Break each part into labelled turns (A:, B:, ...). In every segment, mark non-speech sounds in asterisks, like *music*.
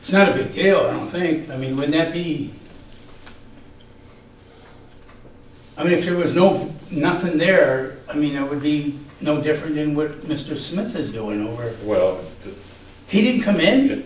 A: It's not a big deal, I don't think. I mean, wouldn't that be? I mean, if there was no, nothing there, I mean, it would be no different than what Mr. Smith is doing over.
B: Well, th-
A: He didn't come in,
B: it-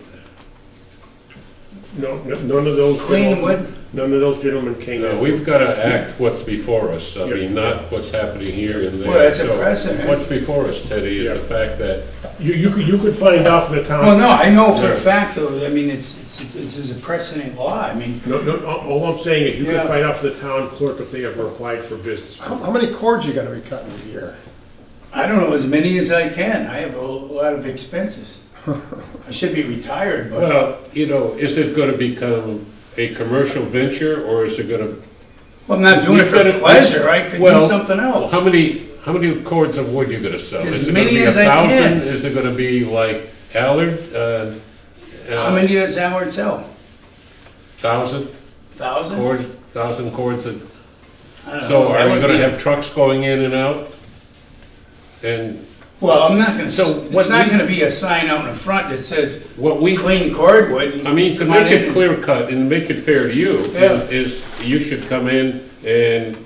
C: No, no- none of those.
A: clean
C: gentlemen-
A: wood,
C: None of those gentlemen came
B: no,
C: in.
B: we've got to act what's before us, I
C: Yeah.
B: mean, not what's happening here and there.
A: Well, that's a
B: So,
A: precedent.
B: What's before us, Teddy, is
C: Yeah.
B: the fact that,
C: You, you could, you could find out from the town.
A: Well, no, I know for
C: Yeah.
A: a fact, though, I mean, it's, it's, it's it's a precedent law, I mean,
C: No, no, all all I'm saying is you
A: Yeah.
C: can find out from the town clerk if they ever applied for business.
D: How, how many cords you gonna be cutting a year?
A: I don't know, as many as I can, I have a lot of
B: *laughs*
A: expenses. I should be retired, but,
B: well, you know, is it going to become a commercial venture or is it going
A: well, I'm not doing it
B: You
A: for
B: could've-
A: pleasure, I could do
B: Well,
A: something
B: to,
A: else.
B: how many, how many cords of wood you going to sell?
A: As
B: Is it gonna
A: many
B: be a
A: as I can.
B: thousand? Is it going to be like Allard? uh,
A: How
B: uh,
A: many does Howard sell?
B: Thousand
A: Thousand?
B: cords, thousand cords of
A: I don't know,
B: So
A: that
B: are you
A: would
B: gonna
A: be-
B: have trucks going in and out? And
A: Well, I'm not gonna, s-
B: So
A: it's
B: what
A: not
B: we-
A: gonna be a sign out in front that says,
B: what we,
A: clean cordwood.
B: I mean, to
A: Come on
B: make
A: in
B: it
A: and-
B: clear cut and make it fair to you,
A: Yeah.
B: is you should come in and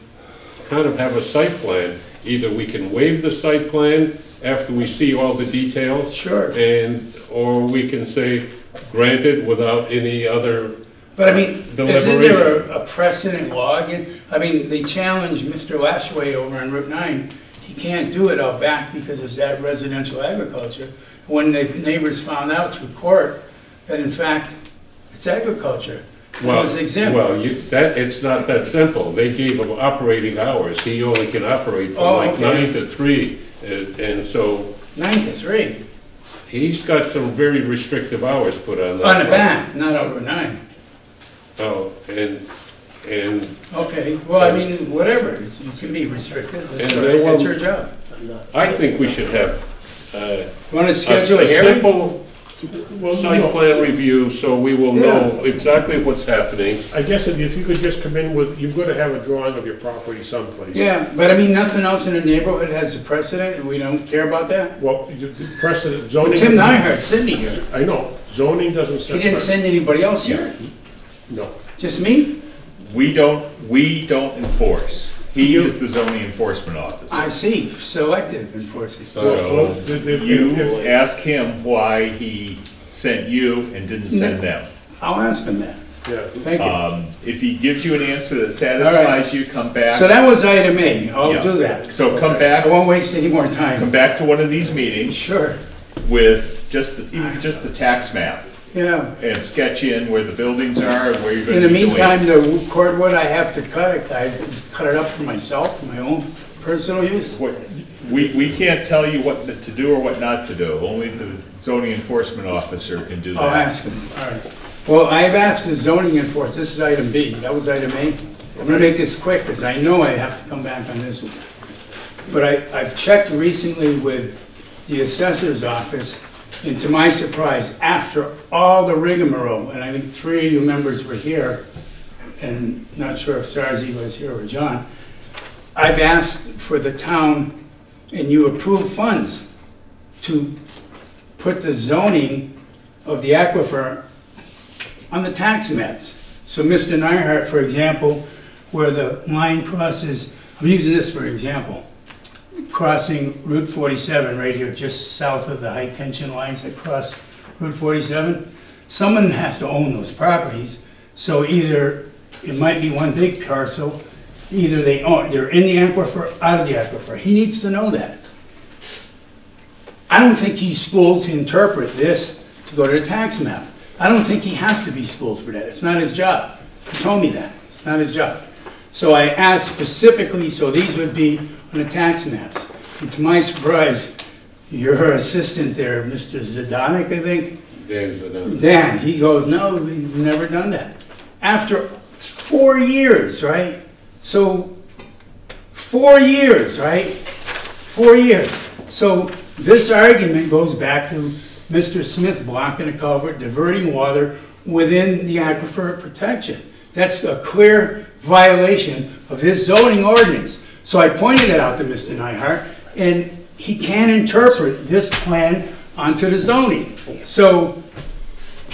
B: kind of have a site plan. Either we can waive the site plan after we see all the details.
A: Sure.
B: And, or we can say granted without any other,
A: But I mean, isn't there
B: Deliberation.
A: a- a precedent law again? I mean, they challenged Mr. Lashway over on Route 9. He can't do it out back because it's that residential agriculture. When the neighbors found out through court that in fact it's agriculture, it
B: well,
A: was exempt.
B: well, you, that, it's not that simple. They gave him operating hours. He only can operate
A: Oh,
B: from like
A: okay.
B: nine to three. And, and so
A: Nine to three,
B: He's got some very restrictive hours put on that.
A: on the back, not out Route 9.
B: Oh, and, and,
A: Okay, well, I mean, whatever, It's- you can be restricted,
B: And
A: it's
B: they
A: all right, it's
B: were-
A: your job.
B: I think we should have, uh,
A: Want to
B: a
A: schedule a
B: a
A: hearing?
B: simple
C: Well,
B: site
C: no.
B: plan review, so we will know exactly what's happening.
C: I guess if if you could just come in with, you've got to have a drawing of your property someplace.
A: Yeah, but I mean, nothing else in the neighborhood has a precedent, and we don't care about that?
C: Well, you- the precedent
A: Well,
C: zoning.
A: Tim Nyhart sitting here.
C: I know, zoning doesn't set.
A: He didn't
C: precedent.
A: send anybody else here,
C: No.
A: just me?
E: We don't, we don't enforce. He is the zoning enforcement officer.
A: I see, selective enforcement.
B: So-
C: Well, the- the-
E: You
C: if-
E: ask him why he sent you and didn't send them.
A: I'll ask him that,
C: yeah.
A: thank
B: Uh,
A: you.
E: Um, If he gives you an answer that satisfies you, come back.
A: So that was item A, I'll
E: Yeah.
A: do that.
E: So come
A: I
E: back,
A: won't waste any more
E: come
A: time.
E: back to one of these meetings
A: Sure,
E: with just, the even just the tax map
A: yeah.
E: and sketch in where the buildings are and where you're
A: In
E: going
A: the
E: to be doing.
A: meantime, the cordwood I have to cut, it, I just cut it up for myself, for my own personal use.
E: What- We, we can't tell you what to do or what not to do. Only the zoning enforcement officer can do that.
A: I'll Oh, ask him, all right. Well, I've asked the zoning enforcement, this is item B, that was item A. I'm gonna make this quick, because I know I have to come back on this one. But I, I've checked recently with the assessor's office, and to my surprise, after all the rigmarole, and I think three of you members were here, and not sure if Sarzi was here or John, I've asked for the town, and you approve funds to put the zoning of the aquifer on the tax maps. So Mr. Nyhart, for example, where the line crosses, I'm using this for example, crossing Route 47 right here, just south of the high tension lines that cross Route 47, someone has to own those properties. So either, it might be one big parcel, either they own, they're in the aquifer, out of the aquifer. He needs to know that. I don't think he's schooled to interpret this to go to the tax map. I don't think he has to be schooled for that. It's not his job. He told me that. It's not his job. So I asked specifically, so these would be on the tax maps. And to my surprise, your assistant there, Mr. Zadanek, I think,
B: Dan's another.
A: Dan, he goes, no, we've never done that. After four years, right? So, four years, right? Four years. So, this argument goes back to Mr. Smith blocking a culvert, diverting water within the aquifer protection. That's a clear violation of his zoning ordinance. So I pointed it out to Mr. Nyhart, and he can't interpret this plan onto the zoning. So